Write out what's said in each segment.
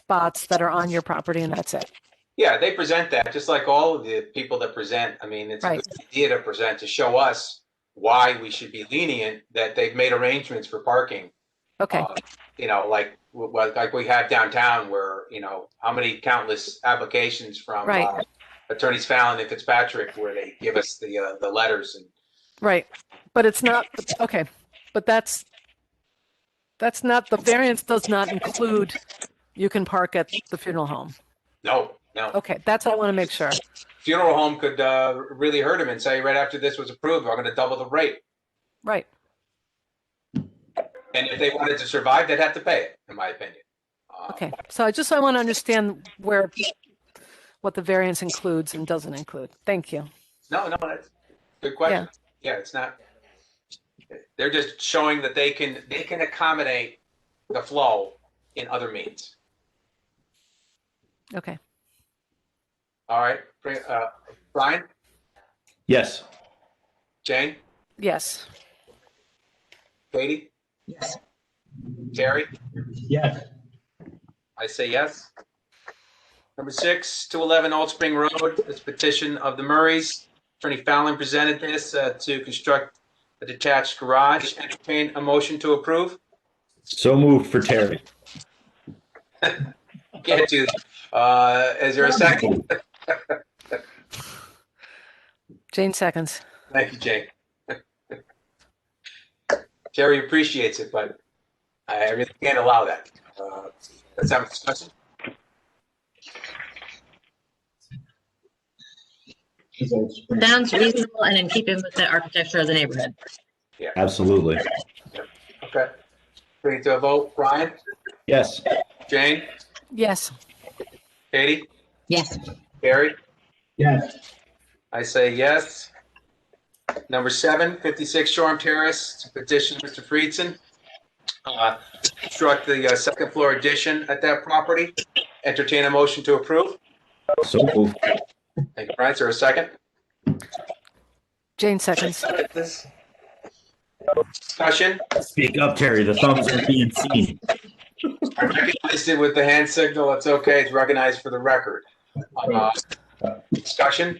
spots that are on your property and that's it. Yeah, they present that, just like all of the people that present. I mean, it's a Right. good idea to present, to show us why we should be lenient, that they've made arrangements for parking. Okay, Uh, You know, like, w- w- like we have downtown where, you know, how many countless applications from Right. uh, attorneys Fallon and Fitzpatrick where they give us the, uh, the letters and right. But it's not, okay, but that's, that's not, the variance does not include you can park at the funeral home. no, no. Okay, that's what I want to make sure. Funeral home could uh, really hurt him and say, right after this was approved, I'm going to double the rate. Right. And if they wanted to survive, they'd have to pay it, in my opinion. Uh, Okay, so I just, I want to understand where, what the variance includes and doesn't include. Thank you. No, no, that's a good question. Yeah, it's not. They're just showing that they can, they can accommodate the flow in other means. Okay, All right, uh, Brian, Yes. Jane, yes. Katie, Yes. Terry, Yes. I say yes. Number six, 211 Old Spring Road, this petition of the Murrays. Attorney Fallon presented this uh, to construct a detached garage. Entertain a motion to approve? So moved for Terry. Can't do, that. Uh, is there a second? Jane seconds. Thank you, Jane. Terry appreciates it, but I really can't allow that. Uh, Let's have a discussion. Sounds reasonable and in keeping with the architecture of the neighborhood. Absolutely. Okay. Bring it to a vote. Brian, Yes. Jane, Yes, Katie, Yes. Terry? Yes. I say yes. Number seven, 56 Shoreham Terrace, petition Mr. Friedson. uh, Construct the uh, second floor addition at that property. Entertain a motion to approve. So moved. Thank you, Brian. Is there a second? Jane seconds. Discussion? Speak up, Terry. The thumbs are being seen. I recognized it with the hand signal. It's okay. It's recognized for the record. Uh, Discussion?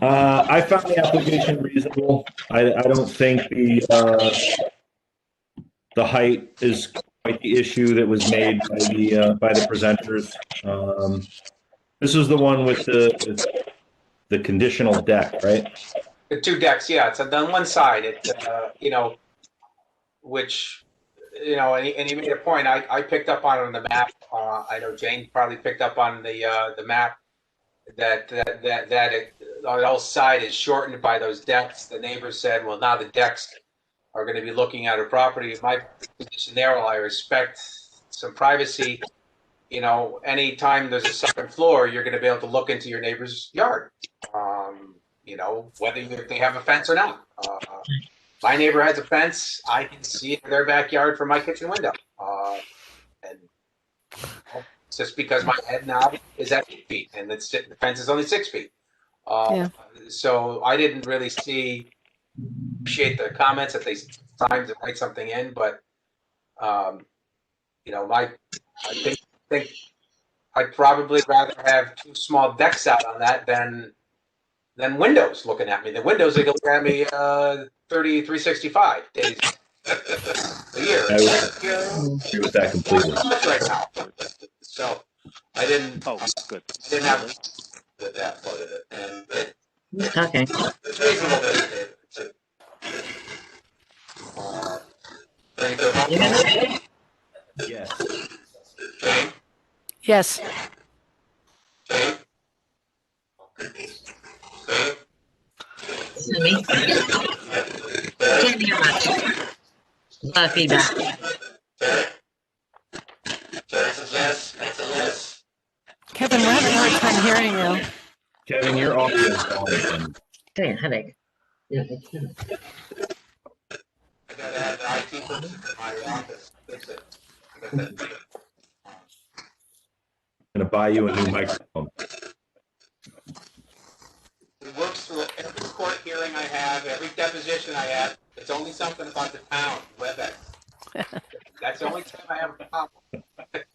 Uh, I found the application reasonable. I, I don't think the, uh, the height is quite the issue that was made by the, uh, by the presenters. Um, this is the one with the, with the conditional deck, right? The two decks, yeah, it's on one side, it, uh, you know, which, you know, and he, and he made a point, I, I picked up on it on the map, uh, I know Jane probably picked up on the, uh, the map, that, that, that, that it, on the whole side is shortened by those decks, the neighbors said, well, now the decks are gonna be looking at a property, my position there, while I respect some privacy, you know, anytime there's a second floor, you're gonna be able to look into your neighbor's yard. Um, you know, whether if they have a fence or not. Uh, my neighbor has a fence. I can see their backyard from my kitchen window. Uh, and it's just because my head now is at eight feet and it's, the fence is only six feet. Uh, So I didn't really see, appreciate the comments that they times to write something in, but, um, you know, my, I think, think I'd probably rather have two small decks out on that than than Windows looking at me. The Windows they look at me uh, 30, 365 days a year. I would- Yeah, Agree with that completely. much right now. So I didn't, Oh, good. I didn't have that part of it. And Okay. it's reasonable to- to- Uh, bring it to a vote. Yes. Jane, Yes, Jane, Excuse me. Can't hear much. A lot of feedback. Kevin, we're having a hard time hearing you. Kevin, your audio is on. Dang, headache. Yeah, that's good. I gotta have the IT person in my office. That's it. Gonna buy you a new microphone. It works through every court hearing I have, every deposition I have. It's only something about the town, WebEx. That's the only time I have a problem.